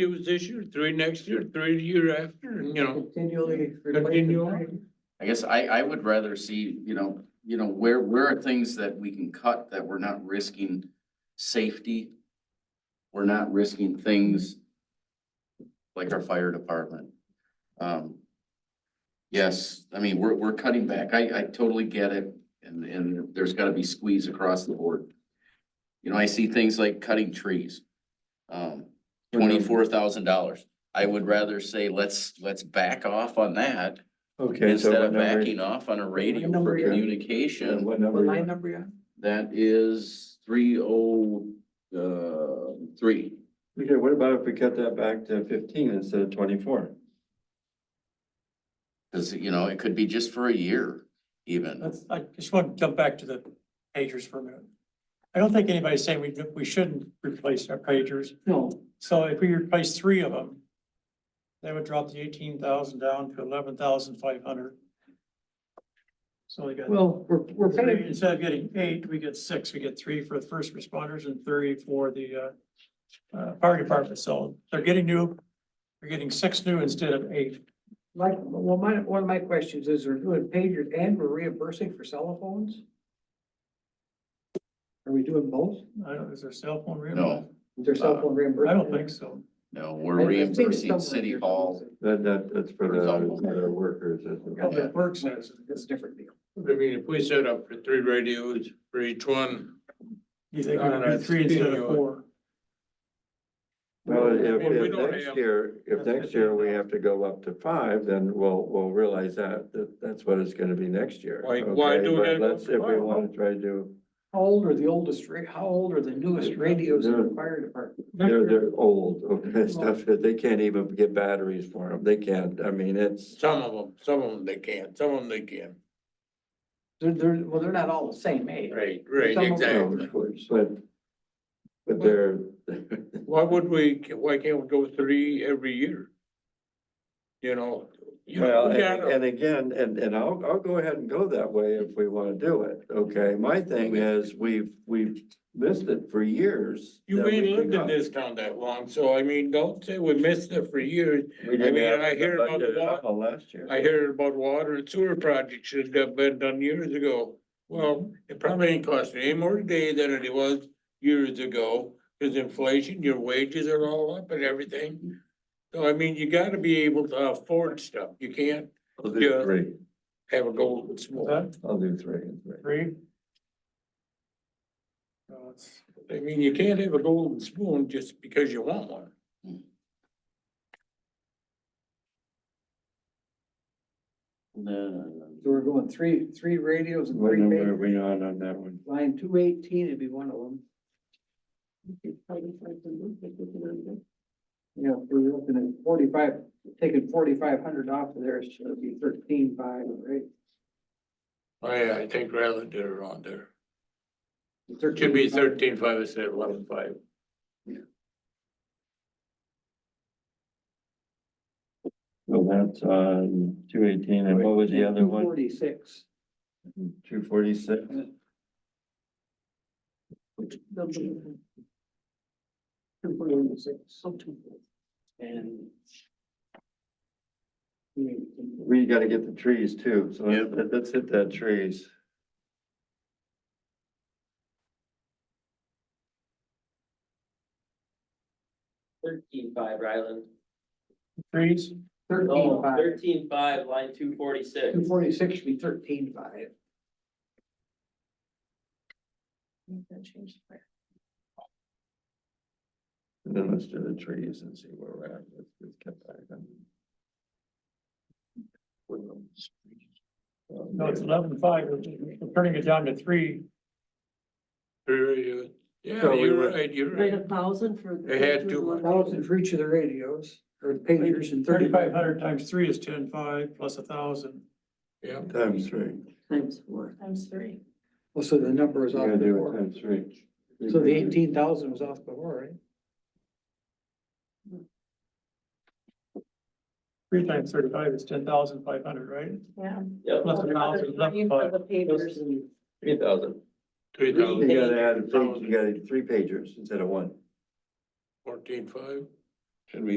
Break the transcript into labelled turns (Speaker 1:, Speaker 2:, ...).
Speaker 1: it was this year, three next year, three the year after, and you know,
Speaker 2: Continually. replace it.
Speaker 1: continue on.
Speaker 3: I guess I, I would rather see, you know, you know, where, where are things that we can cut that we're not risking safety? We're not risking things like our fire department. Um, yes, I mean, we're, we're cutting back. I, I totally get it. And, and there's gotta be squeeze across the board. You know, I see things like cutting trees. Um, twenty-four thousand dollars. I would rather say, let's, let's back off on that
Speaker 4: Okay, so
Speaker 3: Instead
Speaker 4: what
Speaker 3: of
Speaker 4: number?
Speaker 3: backing off on a radio
Speaker 2: number
Speaker 3: for
Speaker 2: are you on?
Speaker 4: yeah,
Speaker 3: communication,
Speaker 4: What number?
Speaker 2: What line
Speaker 4: you
Speaker 2: number you on?
Speaker 3: that is three oh, uh, three.
Speaker 4: on? Okay, what about if we cut that back to fifteen instead of twenty-four?
Speaker 3: Cause you know, it could be just for a year even.
Speaker 5: Let's, I just want to jump back to the pagers for a minute. I don't think anybody's saying we, we shouldn't replace our pagers.
Speaker 2: No,
Speaker 5: So if we replace three of them, that would drop the eighteen thousand down to eleven thousand five hundred. So we got,
Speaker 2: well, we're, we're
Speaker 5: three.
Speaker 2: paying,
Speaker 5: instead of getting eight, we get six. We get three for the first responders and three for the, uh, uh, fire department. So they're getting new, they're getting six new instead of eight.
Speaker 2: like, well, my, one of my questions is, we're doing pagers and we're reimbursing for cell phones? Are we doing both?
Speaker 5: I don't, is there cell phone reimbursement?
Speaker 3: No,
Speaker 2: Is there
Speaker 4: Uh,
Speaker 2: cell phone
Speaker 5: I
Speaker 2: reimbursement?
Speaker 5: don't think so.
Speaker 3: no,
Speaker 2: I- I've
Speaker 3: we're
Speaker 2: seen
Speaker 3: reimbursing
Speaker 2: someone
Speaker 3: city
Speaker 2: here.
Speaker 3: hall.
Speaker 4: That, that, that's for the,
Speaker 3: Example.
Speaker 4: for the workers. isn't it?
Speaker 3: Yeah.
Speaker 5: Public Works has. it.
Speaker 2: That's a different deal.
Speaker 1: I mean, if we set up for three radios for each one,
Speaker 5: You think
Speaker 1: No,
Speaker 5: it would
Speaker 1: no,
Speaker 5: be
Speaker 1: it's
Speaker 5: three instead of
Speaker 1: continuing.
Speaker 5: four?
Speaker 4: Well, if,
Speaker 1: Well, we
Speaker 4: if
Speaker 1: don't
Speaker 4: next
Speaker 1: have-
Speaker 4: year, if
Speaker 5: That's
Speaker 4: next year we
Speaker 5: 15,000.
Speaker 4: have to go up to five, then we'll, we'll realize that, that that's what it's gonna be next year.
Speaker 1: Like, why
Speaker 4: okay?
Speaker 1: do we
Speaker 4: But
Speaker 1: gotta go
Speaker 4: let's-
Speaker 1: to
Speaker 4: If we
Speaker 1: five?
Speaker 4: wanna try to, do-
Speaker 2: How old are the oldest, ra- how old are the newest radios in the
Speaker 4: They're-
Speaker 2: fire department?
Speaker 4: they're, they're old, okay, stuff, that they can't even get batteries for them, they can't, I mean, it's,
Speaker 1: some of them, some of them they can't, some of them they can.
Speaker 2: They're, they're, well, they're not all the same age.
Speaker 1: Right, right,
Speaker 2: Some of
Speaker 4: you know,
Speaker 2: them-
Speaker 1: exactly.
Speaker 4: but, but they're,
Speaker 1: Why would we, why can't we go three every year? You know, you know,
Speaker 4: Well,
Speaker 1: we
Speaker 4: and,
Speaker 1: gotta,
Speaker 4: and again, and, and I'll, I'll go ahead and go that way if we wanna do it, okay? My thing is, we've, we've missed it for years.
Speaker 1: you
Speaker 4: that we
Speaker 1: ain't
Speaker 4: can
Speaker 1: lived in
Speaker 4: cut.
Speaker 1: this town that long, so I mean, don't say we missed it for years.
Speaker 4: We didn't
Speaker 1: mean,
Speaker 4: have
Speaker 1: I hear about the
Speaker 4: budget at
Speaker 1: wa-
Speaker 4: all Last year.
Speaker 1: I hear about water and sewer projects that got been done years ago. Well, it probably ain't costing any more today than it was years ago, cause inflation, your wages are all up and everything. So I mean, you gotta be able to afford stuff, you can't
Speaker 4: I'll do
Speaker 1: yeah.
Speaker 4: three,
Speaker 1: have a golden spoon.
Speaker 5: Is that
Speaker 4: I'll do three and three.
Speaker 5: Three? No, it's-
Speaker 1: I mean, you can't have a golden spoon just because you want one.
Speaker 3: No,
Speaker 2: So we're going three, three radios and
Speaker 4: What
Speaker 2: three
Speaker 4: number are
Speaker 2: pagers.
Speaker 4: we on on that one?
Speaker 2: Line two eighteen would be one of them. Yeah, if we're looking at forty-five, taking forty-five hundred off of there, it should be thirteen-five, right?
Speaker 1: Oh, I, I think Ryland did it wrong there. It
Speaker 2: 13,500.
Speaker 1: Should be thirteen five instead of eleven five.
Speaker 4: Well, that's on two eighteen, and what was the other one?
Speaker 2: Forty-six.
Speaker 4: Two forty-six?
Speaker 2: Two forty-six, something. And.
Speaker 4: We gotta get the trees too, so
Speaker 3: Yep.
Speaker 4: let's, let's hit that trees.
Speaker 6: Thirteen-five, Ryland.
Speaker 5: Threes?
Speaker 6: No,
Speaker 1: Oh,
Speaker 2: Thirteen-five,
Speaker 6: thirteen-five, line two forty-six.
Speaker 2: two forty-six should be thirteen-five.
Speaker 4: And then let's do the trees and see where we're at. Let's just get back on.
Speaker 5: No, it's eleven five, we're we're turning it down to three.
Speaker 1: Yeah,
Speaker 4: So we
Speaker 1: you're
Speaker 4: were-
Speaker 1: right, you're
Speaker 7: Right,
Speaker 1: right.
Speaker 7: a thousand for.
Speaker 1: They had two hundred.
Speaker 2: Thousand for each of the radios, or pagers and
Speaker 5: Thirty-five
Speaker 2: thirty-five hundred.
Speaker 5: hundred times three is ten five plus a thousand.
Speaker 1: Yeah.
Speaker 4: Times three.
Speaker 7: Times four.
Speaker 8: Times three.
Speaker 2: Well, so the number was
Speaker 4: You
Speaker 2: off
Speaker 4: gotta do it
Speaker 2: before.
Speaker 4: times three.
Speaker 2: So the eighteen thousand was off before, right?
Speaker 5: Three times thirty-five is ten thousand five hundred, right?
Speaker 8: Yeah.
Speaker 6: Yep,
Speaker 5: Plus a thousand, eleven
Speaker 7: For
Speaker 5: five.
Speaker 7: the pavers and
Speaker 4: Three thousand.
Speaker 1: Three
Speaker 4: You
Speaker 1: thousand
Speaker 4: gotta add a page, you gotta three pagers instead of one.
Speaker 1: fourteen five. Should we